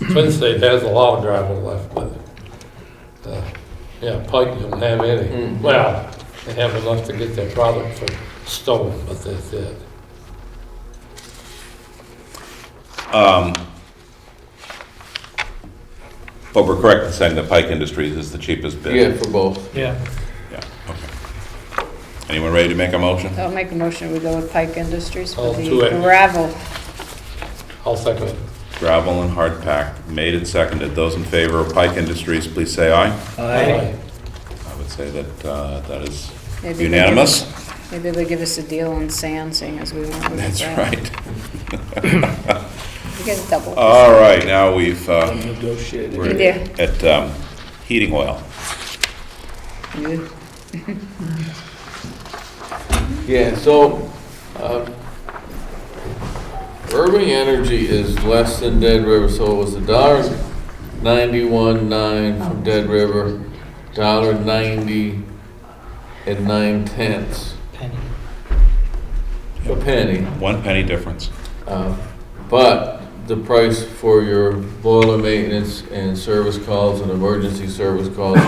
Twin State has a lot of gravel left, but, uh, yeah, Pike doesn't have any. Mm. Well, they have enough to get their product from Stone, but that's it. But we're correct in saying that Pike Industries is the cheapest Yeah, bid. for both. Yeah. Yeah. Okay. Anyone ready to make a motion? I'll make a motion, we go with Pike Industries Oh, All for two the acres. gravel. I'll second it. Gravel and hard pack, made and seconded. Those in favor of Pike Industries, please say aye. Aye. I would say that uh, that is Maybe they unanimous. Maybe they'll give us a deal on sand, seeing as we went with the That's gravel. right. Uh, You get a double. All right, now we've, uh, Negotiated. we're Yeah. at um, heating oil. You- Yeah, so, um, Irving Energy is less than Dead River, so it was a dollar ninety-one nine from Dead River, dollar ninety and nine tenths, Penny. a penny. One penny difference. Uh, But the price for your boiler maintenance and service calls and emergency service calls,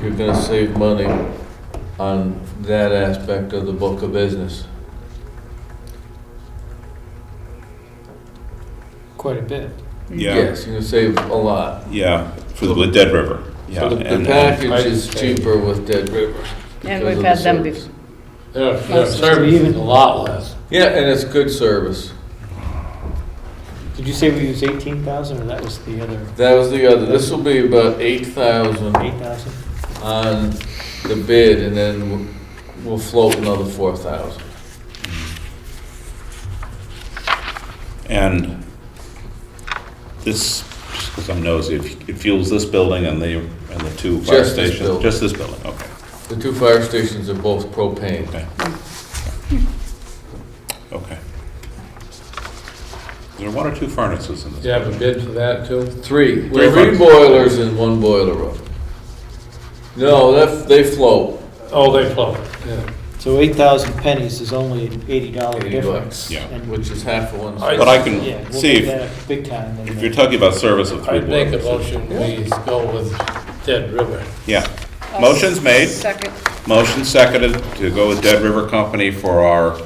you're gonna save money on that aspect of the book of business. Quite a bit. Yeah, Yes, you're gonna save a lot. yeah, for the Dead River. Yeah, So the- and- the and- package is cheaper with Dead River. And because we've of had the them service. before. Their, their service is a lot less. Yeah, and it's good service. Did you say we used eighteen thousand, or that was the other That was the other, this will be about eight thousand eight thousand? on the bid, and then we'll- we'll float another four thousand. And this, because I'm nosy, it it fuels this building and the, and the two fire Just this stations? building. Just this building, okay, The two fire stations are both propane. okay. Okay. There are one or two furnaces in Do this? you have a bid for that too? Three Three. Three furnaces. boilers in one boiler room. No, that, they float. Oh, they float, yeah. So eight thousand pennies is only an eighty dollar 80 difference. bucks. Yeah. And- Which is half of one. I- But I Yeah, can we'll see, make if that up big time. in if the- you're talking about service of three I'd make a boilers. motion, we go with Dead River. Yeah. Motion's made. Oh, Second. Motion seconded to go with Dead River Company for our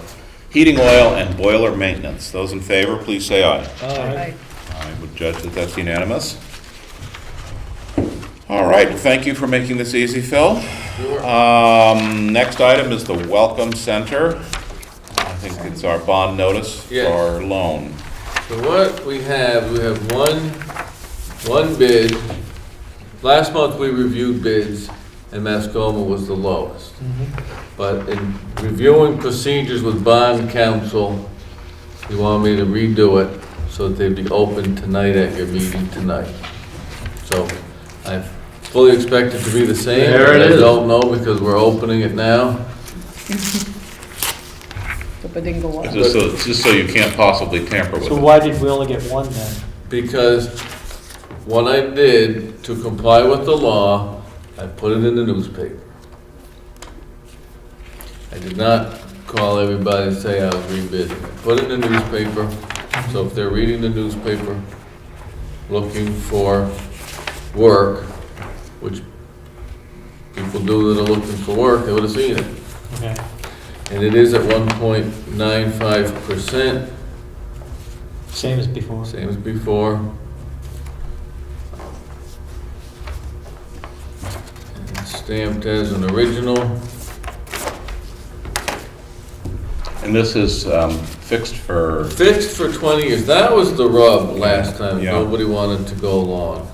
heating oil and boiler maintenance. Those in favor, please say aye. Aye. I would judge that that's unanimous. All right, thank you for making this easy, Phil. Um, Next item is the Welcome Center. I think it's our bond notice for Yes. our loan. So what we have, we have one, one bid. Last month, we reviewed bids, and Mascoma was the lowest. Mm-hmm. But in reviewing procedures with bond counsel, you want me to redo it so that they'd be open tonight at your meeting tonight. So I fully expect it to be the same. There it but I is. don't know because we're opening it now. The Badingo one. Just so, just so you can't possibly tamper with So it. why did we only get one then? Because what I did to comply with the law, I put it in the newspaper. I did not call everybody and say I was rebidding. I put it in the newspaper, so if they're reading the newspaper, looking for work, which people do that are looking for work, they would have seen it. Okay. And it is at one point nine five percent. Same as before. Same as before. And Stamped as an original. And this is um, fixed for, Fixed for 20 years. That was the rub last time. Yeah. Nobody wanted to go long.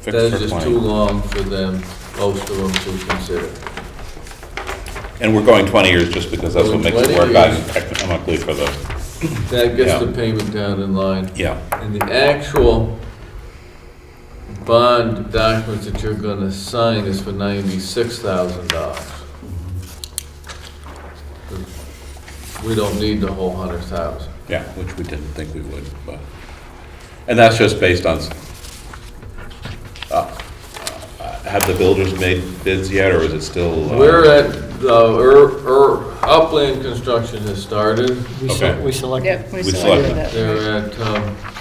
fixed That's for just too 20. long for them, most of them to consider. And we're going 20 years just because that's what Going makes it 20 work out years. economically for the, That gets Yeah. the payment down in line. yeah. And the actual bond documents that you're gonna sign is for ninety-six thousand dollars. We don't need the whole hundred thousand. Yeah, which we didn't think we would, but, and that's just based on, s- uh, uh, have the builders made bids yet, or is it still? uh, We're at, the Ur- Ur- upland construction has started. We Okay. se- we selected. Yep, we We selected. selected that. They're at, um,